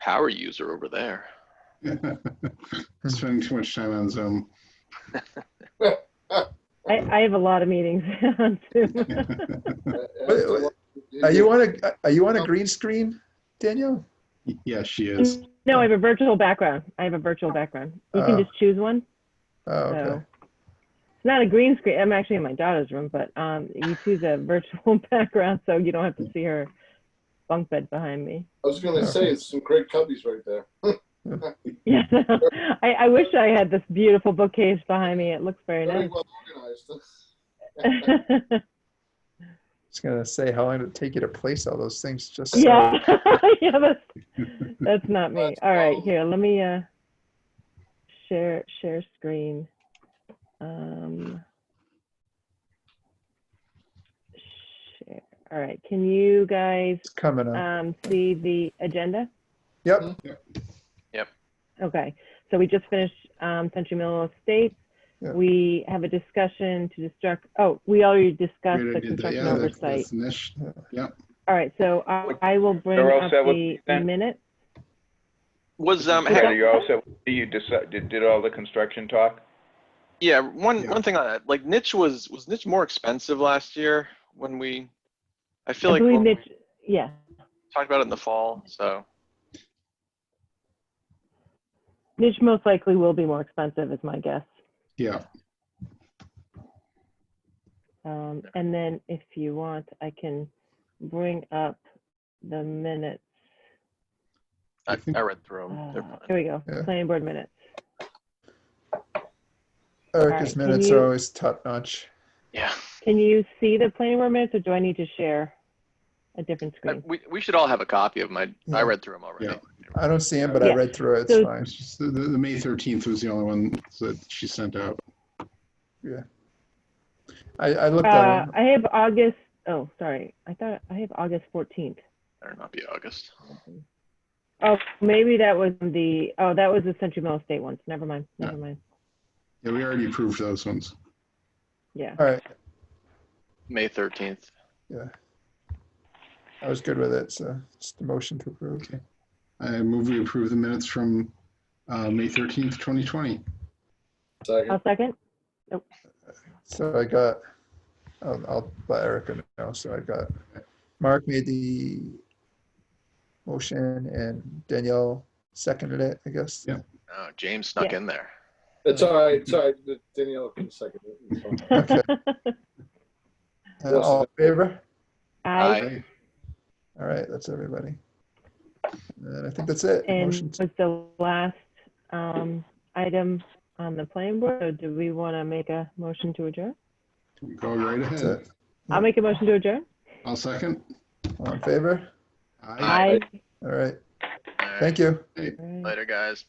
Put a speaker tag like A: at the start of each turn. A: power user over there.
B: Spending too much time on Zoom.
C: I, I have a lot of meetings on Zoom.
D: Are you on a, are you on a green screen, Danielle?
B: Yes, she is.
C: No, I have a virtual background. I have a virtual background. You
D: Oh.
C: can just choose one.
D: Oh,
C: So
D: okay.
C: it's not a green screen. I'm actually in my daughter's room, but um, you choose a virtual background so you don't have to see her bunk bed behind me.
E: I was gonna say, it's some great cubbies right there.
C: Yeah, I, I wish I had this beautiful bookcase behind me. It looks very
E: Very
C: nice.
E: well organized.
C: yeah,
D: Just gonna say, how long did it take you to place all those things? Just so-
C: yeah, that's that's not me. All right, here, let me uh, share share screen. Um, share. All right, can you guys
D: it's coming up.
C: um, see the agenda?
D: Yep.
C: Okay, so we just finished um, Century Mill Estates.
D: Yeah.
C: We have a discussion to destruct, oh, we already discussed
B: Great
C: the
B: idea. that-
C: construction
B: yeah, that's-
C: oversight.
B: that's niche.
C: All right, so I I will bring
F: They're all
C: up
F: set with
C: the
F: consent?
C: minutes.
A: Was um
F: Are
A: hey,
F: you also, you deci- did, did all the construction talk?
A: yeah one
B: Yeah.
A: one thing on that like niche was was niche more expensive last year when we I feel
C: I
A: like
C: believe
A: when we
C: Mitch, yeah,
A: talked about it in the fall so
C: Mitch most likely will be more expensive is my guess.
B: Yeah,
C: Um, And then if you want, I can bring up the minutes.
A: I,
B: I think-
A: I read through them. They're
C: Uh,
A: fine.
C: Here we go,
D: Yeah.
C: planning board minutes. Alright,
D: Erica's
C: Uh, can
D: minutes
C: you-
D: are always top notch.
A: Yeah.
C: Can you see the planning board minutes or do I need to share a different
A: I-
C: screen?
A: we, we should all have a copy of my
D: Yeah.
A: I read through them already.
B: Yeah.
D: I don't see him, but I
C: Yeah.
D: read through it. It's
C: So-
D: fine.
B: it's just the, the the May 13th was the only one that she sent out.
D: I, I looked at
C: Uh,
D: him.
C: I have August, oh, sorry, I thought I have August 14th.
A: Better not be August.
C: Oh, maybe that was the, oh, that was the Century Mill Estate ones. Never mind, never mind.
B: Yeah, we already approved those ones.
C: Yeah.
D: All right,
A: May 13th.
D: I was good with it. So just a motion to approve.
B: Okay. I move we approve the minutes from uh, May 13th, 2020.
E: Second.
C: I'll second.
D: So I got, I'll, I'll let Erica know. So I got, Mark made the motion and Danielle seconded it, I guess.
B: Yeah.
A: Oh, James snuck
C: Yeah.
A: in there.
E: It's all right, it's all right. Danielle can second it. It's fine.
D: Okay. Uh, All in favor?
C: Aye.
A: Aye.
D: All right, that's everybody. And I think that's it.
C: And
D: Motion
C: was the last um, item on the planning board, or do we want to make a motion to adjourn?
B: Go right
D: to,
B: ahead.
C: I'll make a motion to adjourn.
B: I'll second.
D: all in favor?
B: Aye.
A: Aye.
C: Aye.
D: All right,
A: All right.
D: thank you.
C: All right.
A: Later, guys.